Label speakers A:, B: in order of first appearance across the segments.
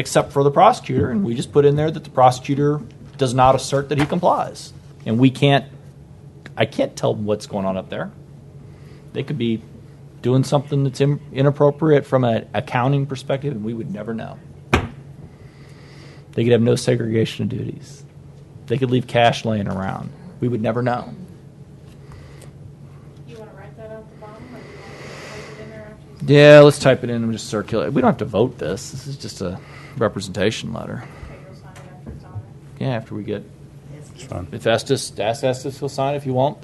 A: except for the prosecutor, and we just put in there that the prosecutor does not assert that he complies, and we can't. I can't tell what's going on up there. They could be doing something that's in, inappropriate from an accounting perspective, and we would never know. They could have no segregation of duties. They could leave cash laying around. We would never know.
B: You want to write that out the bottom, or you want to put it in there after you?
A: Yeah, let's type it in and just circulate. We don't have to vote this. This is just a representation letter.
B: Okay, you'll sign it after it's on there.
A: Yeah, after we get
C: It's fine.
A: If Estes, ask Estes, he'll sign. If he won't,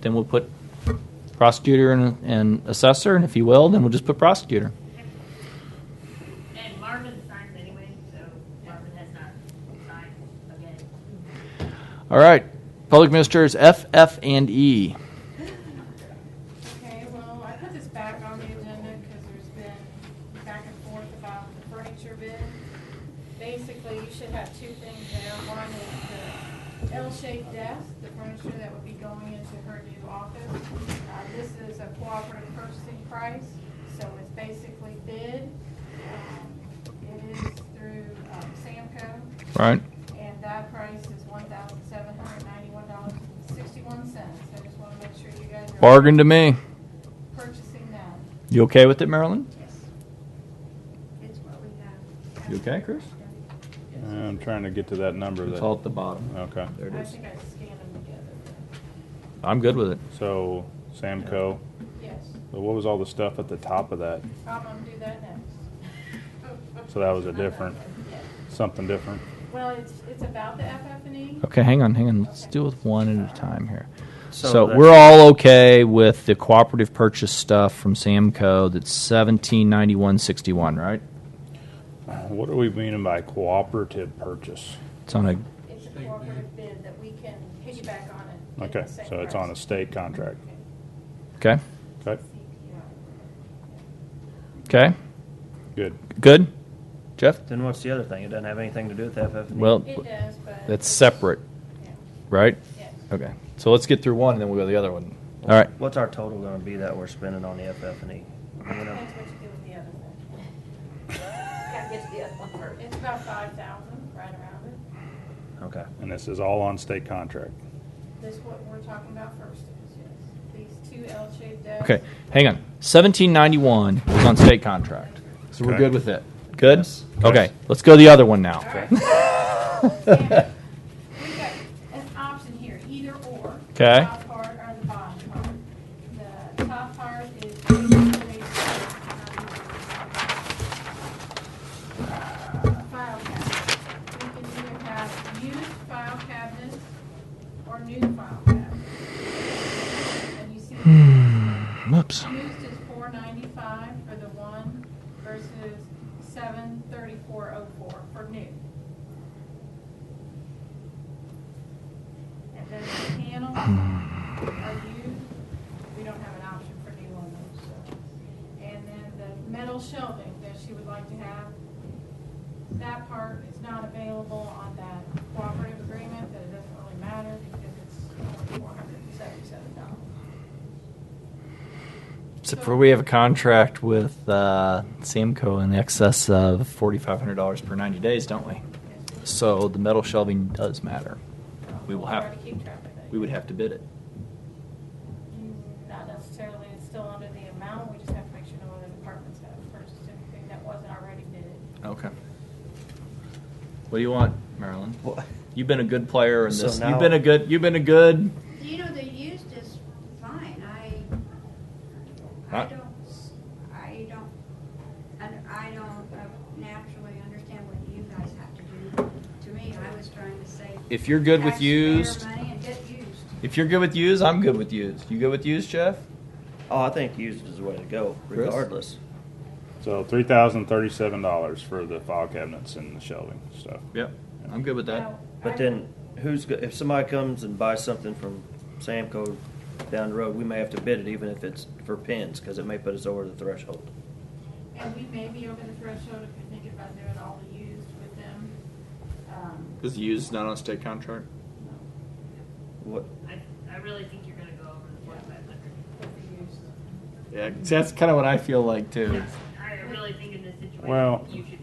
A: then we'll put prosecutor and, and assessor, and if he will, then we'll just put prosecutor.
D: And Marvin signs anyway, so Marvin has not signed again.
A: All right, public ministers F, F, and E.
B: Okay, well, I put this back on the agenda because there's been back and forth about the furniture bid. Basically, you should have two things there. One is the L-shaped desk, the furniture that would be going into her new office. Uh, This is a cooperative purchasing price, so it's basically bid. Um, It is through um, Samco.
A: Right.
B: And that price is one thousand seven hundred ninety-one dollars and sixty-one cents. I just wanna make sure you guys are.
A: Bargain to me.
B: Purchasing that.
A: You okay with it, Marilyn?
B: Yes. It's what we have.
A: You okay, Chris?
C: I'm trying to get to that number
A: It's
C: that,
A: all at the bottom.
C: okay.
A: There it
B: I
A: is.
B: think I scanned them together.
A: I'm good with it.
C: So, Samco,
B: Yes,
C: but what was all the stuff at the top of that?
B: I'm gonna do that next.
C: So that was a different,
B: Yeah.
C: something different.
B: Well, it's, it's about the FF&E.
A: Okay, hang on, hang on. Let's do it one at a time here. So,
E: So the-
A: we're all okay with the cooperative purchase stuff from Samco that's seventeen ninety one sixty one, right?
C: What are we meaning by cooperative purchase?
A: It's on a
B: It's a cooperative bid that we can piggyback on it. at the
C: Okay,
B: same
C: so it's on a
B: price.
C: state contract.
A: okay,
C: Okay,
A: okay,
C: good.
A: good. Jeff,
E: Then what's the other thing? It doesn't have anything to do with FF.
A: well,
B: It does, but.
A: that's separate,
B: Yeah,
A: right?
B: Yes.
A: Okay, so let's get through one and then we'll go to the other one. All right,
E: What's our total going to be that we're spending on the FF and E? You know,
B: Depends what you do with the other one.
D: Gotta get to the other one first.
B: It's about five thousand, right around it.
E: okay.
C: And this is all on state contract.
B: This what we're talking about first is, yes, these two L-shaped desks.
A: okay, hang on. Seventeen ninety one is on state contract, so we're
C: Okay.
A: good with it. Good.
E: Yes.
A: Okay, let's go to the other one now.
B: All right. And We've got an option here, either or.
A: Okay.
B: The top part or the bottom part. The top part is basically, um, file cabinet. We can either have used file cabinets or new file cabinets. And you see
A: Hmm. Whoops.
B: Used is four ninety-five for the one versus seven thirty-four oh four for new. And then the panels are used, we don't have an option for new on those, so. And then the metal shelving that she would like to have, that part is not available on that cooperative agreement, but it doesn't really matter because it's only four hundred and seventy-seven dollars.
A: Except for we have a contract with uh, Samco in excess of forty five hundred dollars per ninety days, don't we? So the metal shelving does matter. We will have-
B: Hard to keep track of that.
A: We would have to bid it.
B: Not necessarily, it's still under the amount, we just have to make sure no other departments have purchased anything that wasn't already bid.
A: Okay. What do you want, Marilyn? You've been a good player in
E: So
A: this.
E: now-
A: you've been a good. You've been a good.
F: You know, the used is fine, I, I
A: Huh?
F: don't, s- I don't, and I don't uh, naturally understand what you guys have to do. To me, I was trying to say.
A: If you're good with
F: taxpayer
A: used-
F: Money and get used.
A: If you're good with used, I'm good with used. You good with used, Jeff?
E: Oh, I think used is the way to go,
A: Chris?
E: regardless.
C: So three thousand thirty-seven dollars for the file cabinets and the shelving stuff.
A: Yep. I'm good with that.
B: Now, I-
E: But then, who's go- if somebody comes and buys something from Samco down the road, we may have to bid it, even if it's for pins, because it may put us over the threshold.
B: And we may be over the threshold if you're thinking about doing all the used with them. Um,
A: Because used is not on a state contract.
B: no,
E: What?
D: I, I really think you're gonna go over the forty-five hundred.
B: with the used.
A: Yeah, that's kind of what I feel like
D: I really think in this situation,
C: Well,
D: you should